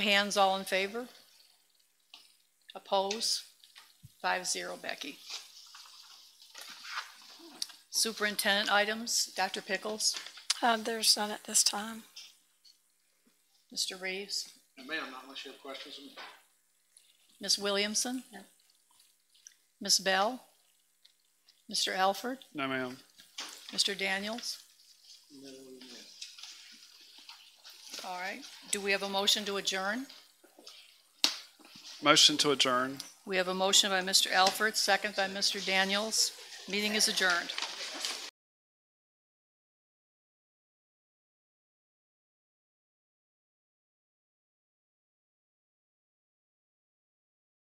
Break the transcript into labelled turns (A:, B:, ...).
A: Hands all in favor? Oppose? Five zero, Becky. Superintendent items, Dr. Pickles,
B: Uh, there's none at this time.
A: Mr. Reeves,
C: And ma'am, not unless you have questions. of me.
A: Ms. Williamson? Ms. Bell? Mr. Alford?
D: No, ma'am.
A: Mr. Daniels?
C: No, ma'am.
A: All right. Do we have a motion to adjourn?
D: Motion to adjourn.
A: We have a motion by Mr. Alford, second by Mr. Daniels. Meeting is adjourned.